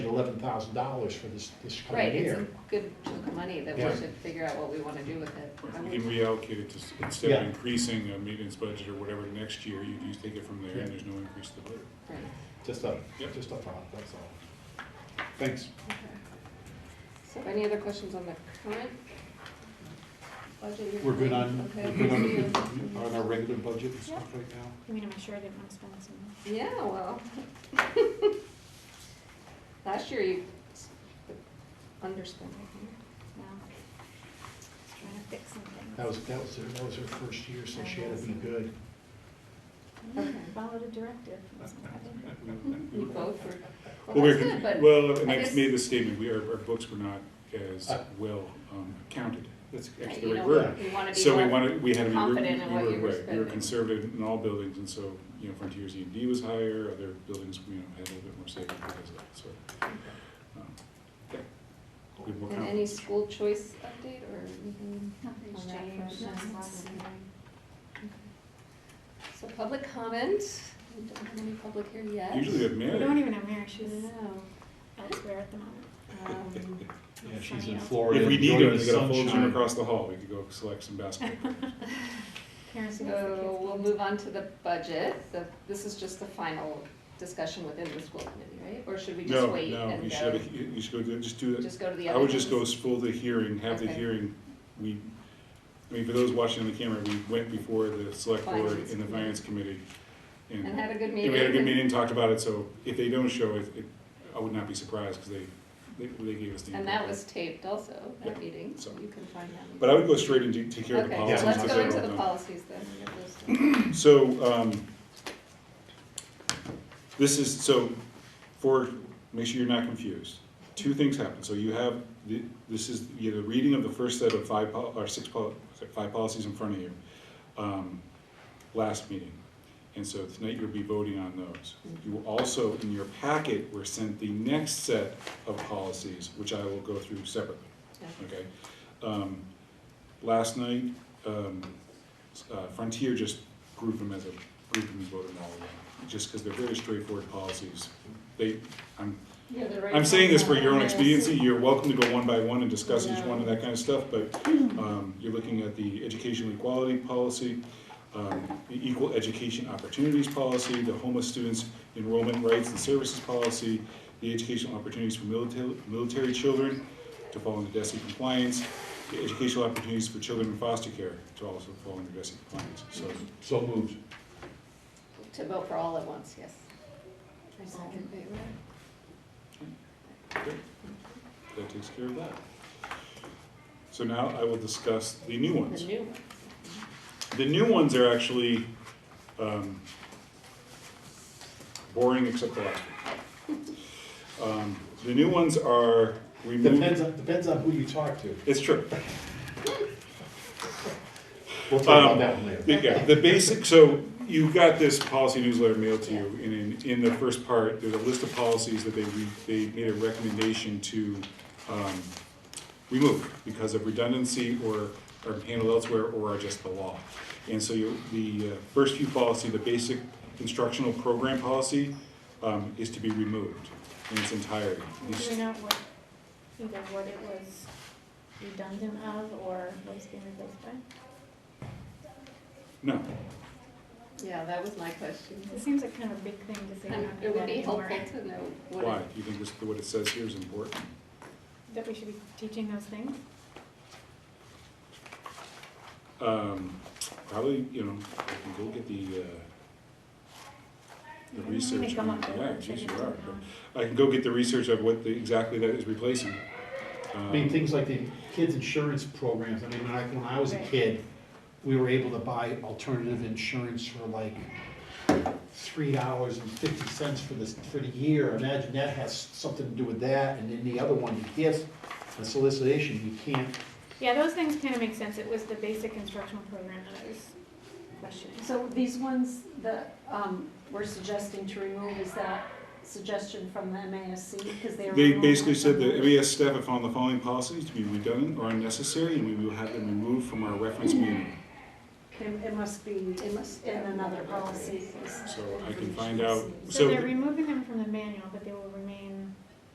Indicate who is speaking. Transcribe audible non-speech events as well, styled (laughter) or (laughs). Speaker 1: eleven thousand dollars for this, this coming
Speaker 2: Right, it's a
Speaker 1: year.
Speaker 2: good chunk of money that we
Speaker 1: Yeah.
Speaker 2: should figure out what we wanna do with it.
Speaker 3: If
Speaker 2: I
Speaker 3: we
Speaker 2: would-
Speaker 3: can reallocate it to, s- instead of
Speaker 1: Yeah.
Speaker 3: increasing a maintenance budget or whatever next year, you do take it from there
Speaker 1: Yeah.
Speaker 3: and there's no increase to the budget.
Speaker 2: Right,
Speaker 1: Just a,
Speaker 3: Yep.
Speaker 1: just a thought, that's all. Thanks.
Speaker 2: okay. So any other questions on the current budget?
Speaker 1: We're good on,
Speaker 2: Okay.
Speaker 1: we're good on the- on our regular budget and stuff right now?
Speaker 4: I mean, I'm sure I didn't want to spend some.
Speaker 2: Yeah, well. (laughs) Last year you s- underspent, I think.
Speaker 4: No. Just trying to fix something.
Speaker 1: That was, that was, her- that was her first year, so she had to be good.
Speaker 2: Okay.
Speaker 4: Followed a directive. from somebody.
Speaker 2: You both were,
Speaker 3: Well,
Speaker 2: well,
Speaker 3: we're
Speaker 2: that's
Speaker 3: con-
Speaker 2: good, but.
Speaker 3: Well, and
Speaker 2: I
Speaker 3: I
Speaker 2: guess-
Speaker 3: made the statement, we, our, our books were not as
Speaker 1: Uh,
Speaker 3: well um, counted.
Speaker 1: That's
Speaker 3: That's
Speaker 2: Right,
Speaker 3: the
Speaker 2: you
Speaker 3: right
Speaker 2: know,
Speaker 3: word.
Speaker 2: we- we wanna be
Speaker 3: So we
Speaker 2: more-
Speaker 3: wanted, we had to be, we were,
Speaker 2: confident in what
Speaker 3: we
Speaker 2: you
Speaker 3: were,
Speaker 2: were
Speaker 3: right, we were
Speaker 2: spending.
Speaker 3: conservative in all buildings, and so, you know, Frontiers E and D was higher, other buildings, you know, had a little bit more savings because of that, so. um, yeah, we were
Speaker 2: And any
Speaker 3: confident.
Speaker 2: school choice update or anything?
Speaker 4: Nothing's
Speaker 2: on that
Speaker 4: changed.
Speaker 2: front?
Speaker 4: Nothing's
Speaker 2: Nothing.
Speaker 4: happening.
Speaker 2: Okay. So public comment, we don't have any public here yet. um,
Speaker 3: Usually we have
Speaker 4: We don't
Speaker 3: Mary,
Speaker 4: even have Mary, she's
Speaker 2: No.
Speaker 4: elsewhere at the moment.
Speaker 2: (laughs) Um,
Speaker 1: Yeah, she's
Speaker 4: Sunny
Speaker 1: in
Speaker 4: out.
Speaker 1: Florida.
Speaker 3: if we need
Speaker 1: enjoying
Speaker 3: her, we
Speaker 1: the
Speaker 3: got a full
Speaker 1: sunshine.
Speaker 3: gym across the hall, we could go select some basketball. players.
Speaker 4: Parents and kids
Speaker 2: So we'll
Speaker 4: games.
Speaker 2: move on to the budget. The- This is just the final discussion within the school committee, right? Or should (laughs) we just
Speaker 3: No,
Speaker 2: wait
Speaker 3: no,
Speaker 2: and
Speaker 3: you should, have
Speaker 2: go?
Speaker 3: a- you you should go, do- just do it.
Speaker 2: Just go to the
Speaker 3: I
Speaker 2: other
Speaker 3: would just go
Speaker 2: ones?
Speaker 3: s- full the hearing, have the
Speaker 2: Okay.
Speaker 3: hearing, we, I mean, for those watching on the camera, we went before the select board
Speaker 2: Finance
Speaker 3: and the
Speaker 2: committee.
Speaker 3: finance committee.
Speaker 2: And had a good
Speaker 3: Yeah,
Speaker 2: meeting?
Speaker 3: we had a good meeting, talked about it, so if they don't show it, it, I would not be surprised, because they, they, they gave us the.
Speaker 2: And that was taped also,
Speaker 3: Yeah,
Speaker 2: that meeting, so
Speaker 3: so-
Speaker 2: you can find that.
Speaker 3: But I would go straight into, take care of the
Speaker 2: Okay,
Speaker 3: policies.
Speaker 2: so
Speaker 1: Yeah,
Speaker 2: let's
Speaker 3: and
Speaker 2: go
Speaker 3: so
Speaker 2: into
Speaker 3: on.
Speaker 2: the policies then. and get those uh, done.
Speaker 3: So, um, this is, so, for, make sure you're not confused. Two things happen, so you have, the- this is, you have the reading of the first set of five, pol- or six, pol- five policies in front of you, um, last meeting. And so tonight you'll be voting on those. You will also, in your packet, were sent the next set of policies, which I will go through separately. Okay. Um, last night, um, s- uh, Frontier just grouped them as a group and voted all of them, just because they're very straightforward policies. They, I'm,
Speaker 2: Yeah, the right
Speaker 3: I'm saying this for your own
Speaker 2: one.
Speaker 3: expediency, you're welcome to go one by one and discuss each
Speaker 2: No.
Speaker 3: one and that kind of stuff, but, um, you're looking at the educational equality policy, um, the equal education opportunities policy, the homeless students enrollment rights and services policy, the educational opportunities for military, military children to fall into DESI compliance, the educational opportunities for children in foster care to also fall into DESI compliance, so.
Speaker 1: So moved.
Speaker 2: To vote for all at once, yes. All in favor?
Speaker 3: That takes care of that. So now I will discuss the new
Speaker 2: The
Speaker 3: ones.
Speaker 2: new one.
Speaker 3: The new ones are actually um, boring except the last one. Um, The new ones are
Speaker 1: Depends
Speaker 3: removed,
Speaker 1: on, depends on who you talk to.
Speaker 3: it's true.
Speaker 1: We'll talk about
Speaker 3: Um,
Speaker 1: that one later.
Speaker 3: Yeah, the basic, so you got this policy newsletter mailed to you, and in, in the first part, there's a list of policies that they, re- they made a recommendation to, um, remove because of redundancy or, or handled elsewhere or are just the law. And so you, the uh, first few policy, the basic instructional program policy, um, is to be removed in its entirety.
Speaker 4: Do we know what, either what it was redundant of or what it's being replaced by?
Speaker 3: No,
Speaker 2: Yeah, that was my question.
Speaker 4: It seems like kind of a big thing to say. we're
Speaker 2: And
Speaker 4: not
Speaker 2: Um, It
Speaker 4: gonna
Speaker 2: would be
Speaker 4: do that anymore.
Speaker 2: helpful to know what.
Speaker 3: why? Do you think this- what it says here is important?
Speaker 4: That we should be teaching those things?
Speaker 3: Um, probably, you know, I can go get the, uh, the
Speaker 4: I'm gonna
Speaker 3: research.
Speaker 4: come
Speaker 3: on-
Speaker 4: up with
Speaker 3: Yeah,
Speaker 4: words I
Speaker 3: geez, you
Speaker 4: didn't
Speaker 3: are.
Speaker 4: know.
Speaker 3: I can go get the research of what the, exactly that is replacing.
Speaker 1: I mean,
Speaker 3: Um,
Speaker 1: things like the kids' insurance programs, I mean, when I, when I was a kid, we were able to buy alternative insurance for like three dollars and fifty cents for this, for the year, imagine that has something to do with that, and then the other one, the gift, the solicitation, you can't,
Speaker 4: Yeah, those things kind of make sense. It was the basic instructional program that I was questioning.
Speaker 5: So these ones that um, we're suggesting to remove, is that suggestion from the MASC? Because they are.
Speaker 3: They basically said that MES staff have found the following policies to be redundant or unnecessary, and we will have them removed from our reference manual.
Speaker 5: It it must be in another policy.
Speaker 3: So I can find out,
Speaker 4: So
Speaker 3: so,
Speaker 4: they're removing them from the manual, but they will remain